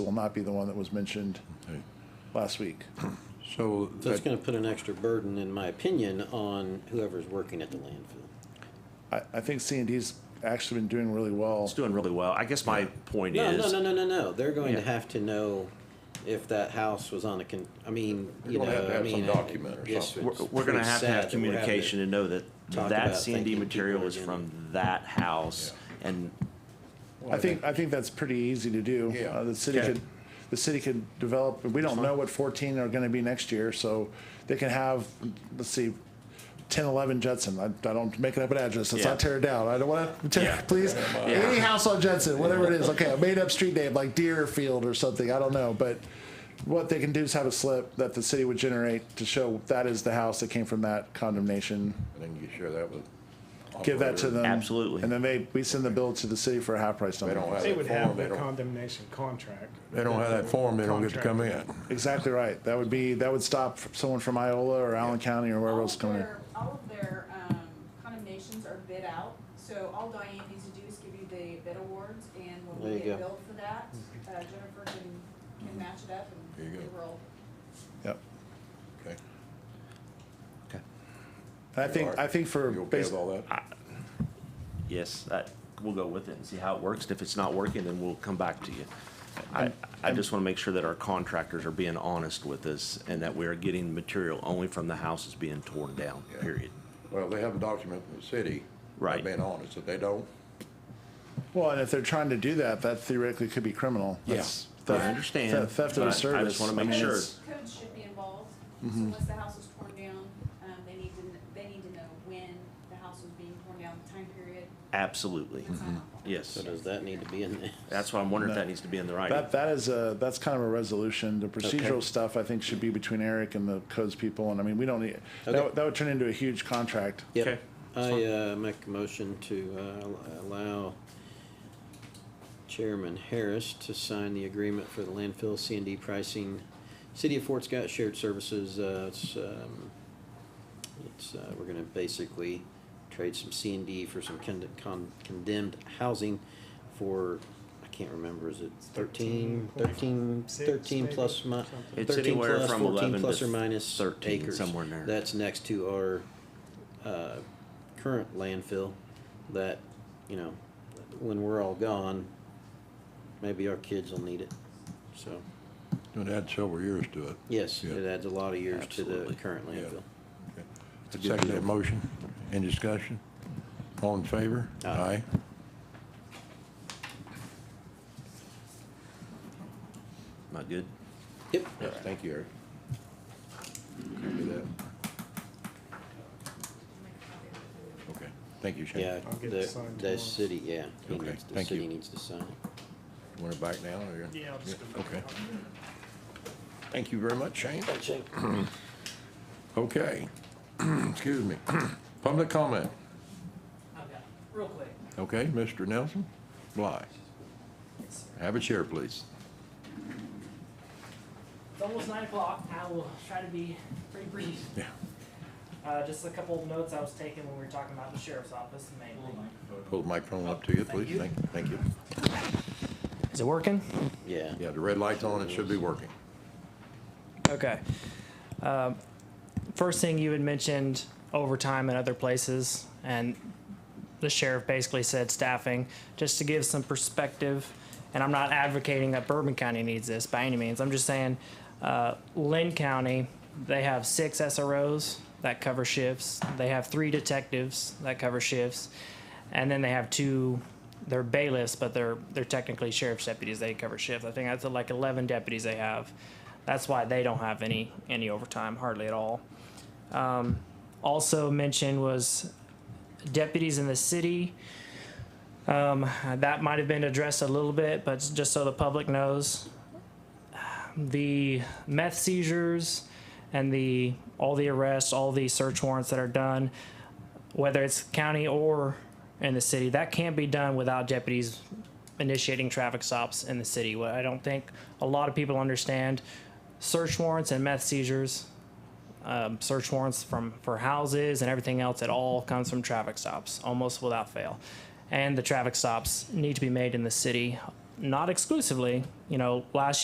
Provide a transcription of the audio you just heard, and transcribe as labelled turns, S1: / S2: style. S1: will not be the one that was mentioned
S2: Okay.
S1: last week.
S2: So
S3: That's
S2: that-
S3: gonna put an extra burden, in my opinion, on whoever's working at the landfill.
S1: I, I think C and D's actually been doing really well.
S4: It's doing really well. I guess my point
S3: No,
S4: is.
S3: no, no, no, no, no, they're going to
S4: Yeah.
S3: have to know if that house was on a con, I mean,
S2: They're
S3: you know,
S2: gonna have to
S3: I
S2: have some
S3: mean.
S2: document or something.
S4: We're, we're gonna have to have communication and know that
S3: talk
S4: that
S3: about
S4: C and D
S3: thanking
S4: material
S3: people
S4: is
S3: again.
S4: from that house. And
S1: I think, I think that's pretty easy to do.
S2: Yeah.
S1: Uh, The city
S2: Okay.
S1: could, the city could develop, we don't know what fourteen are gonna be next year, so they can have, let's see, 10, 11 Judson. I, I don't make it up an address. Let's
S4: Yeah.
S1: not tear it down. I don't wanna, tear-
S4: Yeah.
S1: please, any house on Judson, whatever it is, okay, a made-up street name like Deerfield or something, I don't know, but what they can do is have a slip that the city would generate to show that is the house that came from that condemnation.
S2: And then you share that with.
S1: Give that to
S2: operator.
S1: them.
S4: Absolutely.
S1: And then they, we send the bill to the city for a half price
S2: They
S1: number.
S2: don't have
S5: They
S2: that
S5: would have
S2: form, they
S5: the
S2: don't,
S5: condemnation contract.
S2: they don't have that form, they don't get to come in.
S1: Exactly right. That would be, that would stop someone from Iola or Allen County or wherever
S6: All
S1: else
S6: of
S1: coming in.
S6: their- All of their, um, condemnations are bid out, so all Diane needs to do is give you the bid awards, and when
S3: There
S6: we
S3: you
S6: get
S3: go.
S6: billed for that, uh, Jennifer can, can match it up
S2: There you
S6: and
S2: go.
S6: we will.
S1: Yep.
S2: Okay.
S1: And I
S2: You
S1: think,
S2: are-
S1: I think for,
S2: You okay with
S1: basi-
S2: all that?
S4: yes, that, we'll go with it and see how it works. And if it's not working, then we'll come back to you. I, I just wanna make sure that our contractors are being honest with us and that we're getting material only from the houses being torn down,
S2: Yeah.
S4: period.
S2: Well, they have a document from the city.
S4: Right.
S2: Being honest, if they don't,
S1: well, and if they're trying to do that, that theoretically could be criminal.
S2: Yeah.
S1: That's
S4: I
S1: theft-
S4: understand,
S1: theft- Theft of a
S4: but I
S1: service.
S4: just wanna
S1: I
S4: make
S1: mean, Mm-hmm.
S4: sure.
S1: it's-
S6: Code should be involved, so once the house is torn down, um, they need to, kn- they need to know when the house was being torn down, the time period.
S4: Absolutely,
S6: and sign off on it.
S4: yes.
S3: So does that need to be in there?
S4: That's why I'm wondering if that needs to be in the writing.
S1: That, that is a, that's kind of a resolution. The procedural stuff, I think, should be between Eric and the codes people, and I mean, we don't need, that
S3: Okay.
S1: would- that would turn into a huge contract.
S3: Yep.
S4: Okay.
S3: I uh, make a motion to uh, al- allow Chairman Harris to sign the agreement for the landfill C and D pricing, City of Fort Scott Shared Services. uh, It's, um, it's, uh, we're gonna basically trade some C and D for some conde- con- condemned housing for, I can't remember, is it thirteen, thirteen,
S5: 13.6
S3: thirteen
S5: maybe,
S3: plus mi-
S5: something.
S4: It's
S3: thirteen
S4: anywhere
S3: plus,
S4: from
S3: fourteen
S4: 11 to
S3: plus or minus
S4: 13,
S3: acres.
S4: somewhere in there.
S3: That's next to our uh, current landfill that, you know, when we're all gone, maybe our kids will need it. So,
S2: it adds several years to it.
S3: yes,
S2: Yeah.
S3: it adds a lot of years to the
S4: Absolutely.
S3: current
S2: Yeah.
S3: landfill.
S2: Okay. I Second that motion, in discussion, all in favor?
S3: Aye.
S4: Am I good?
S3: Yep.
S2: Yes, thank you, Eric. Copy that. Okay, thank you, Shane.
S3: Yeah,
S5: I'll get it
S3: the,
S5: signed
S3: the
S5: tomorrow.
S3: city, yeah, he
S2: Okay,
S3: needs, the
S2: thank
S3: city
S2: you.
S3: needs to sign it.
S2: Want it back now, or?
S5: Yeah, I'll just go back.
S2: Okay. Thank you very much, Shane. Okay, excuse me. Public comment,
S7: I've got, real quick,
S2: okay, Mr. Nelson Bly. Have a chair, please.
S7: it's almost nine o'clock, I will try to be pretty brief.
S2: Yeah.
S7: Uh, just a couple of notes I was taking when we were talking about the sheriff's office mainly.
S2: Hold the microphone up to you, please, thank, thank you.
S7: Is it working?
S3: Yeah.
S2: Yeah, the red light's on, it should be working.
S7: Okay. Um, First thing you had mentioned overtime in other places, and the sheriff basically said staffing. Just to give some perspective, and I'm not advocating that Bourbon County needs this by any means. I'm just saying, uh, Lynn County, they have six SROs that cover shifts. They have three detectives that cover shifts, and then they have two. They're bailiffs, but they're they're technically sheriff's deputies. They cover shifts. I think that's like 11 deputies they have. That's why they don't have any any overtime hardly at all. Um, also mentioned was deputies in the city. Um, that might have been addressed a little bit, but just so the public knows, the meth seizures and the all the arrests, all the search warrants that are done, whether it's county or in the city, that can't be done without deputies initiating traffic stops in the city. What I don't think a lot of people understand, search warrants and meth seizures um, search warrants from for houses and everything else. It all comes from traffic stops, almost without fail. And the traffic stops need to be made in the city
S8: not exclusively, you know, last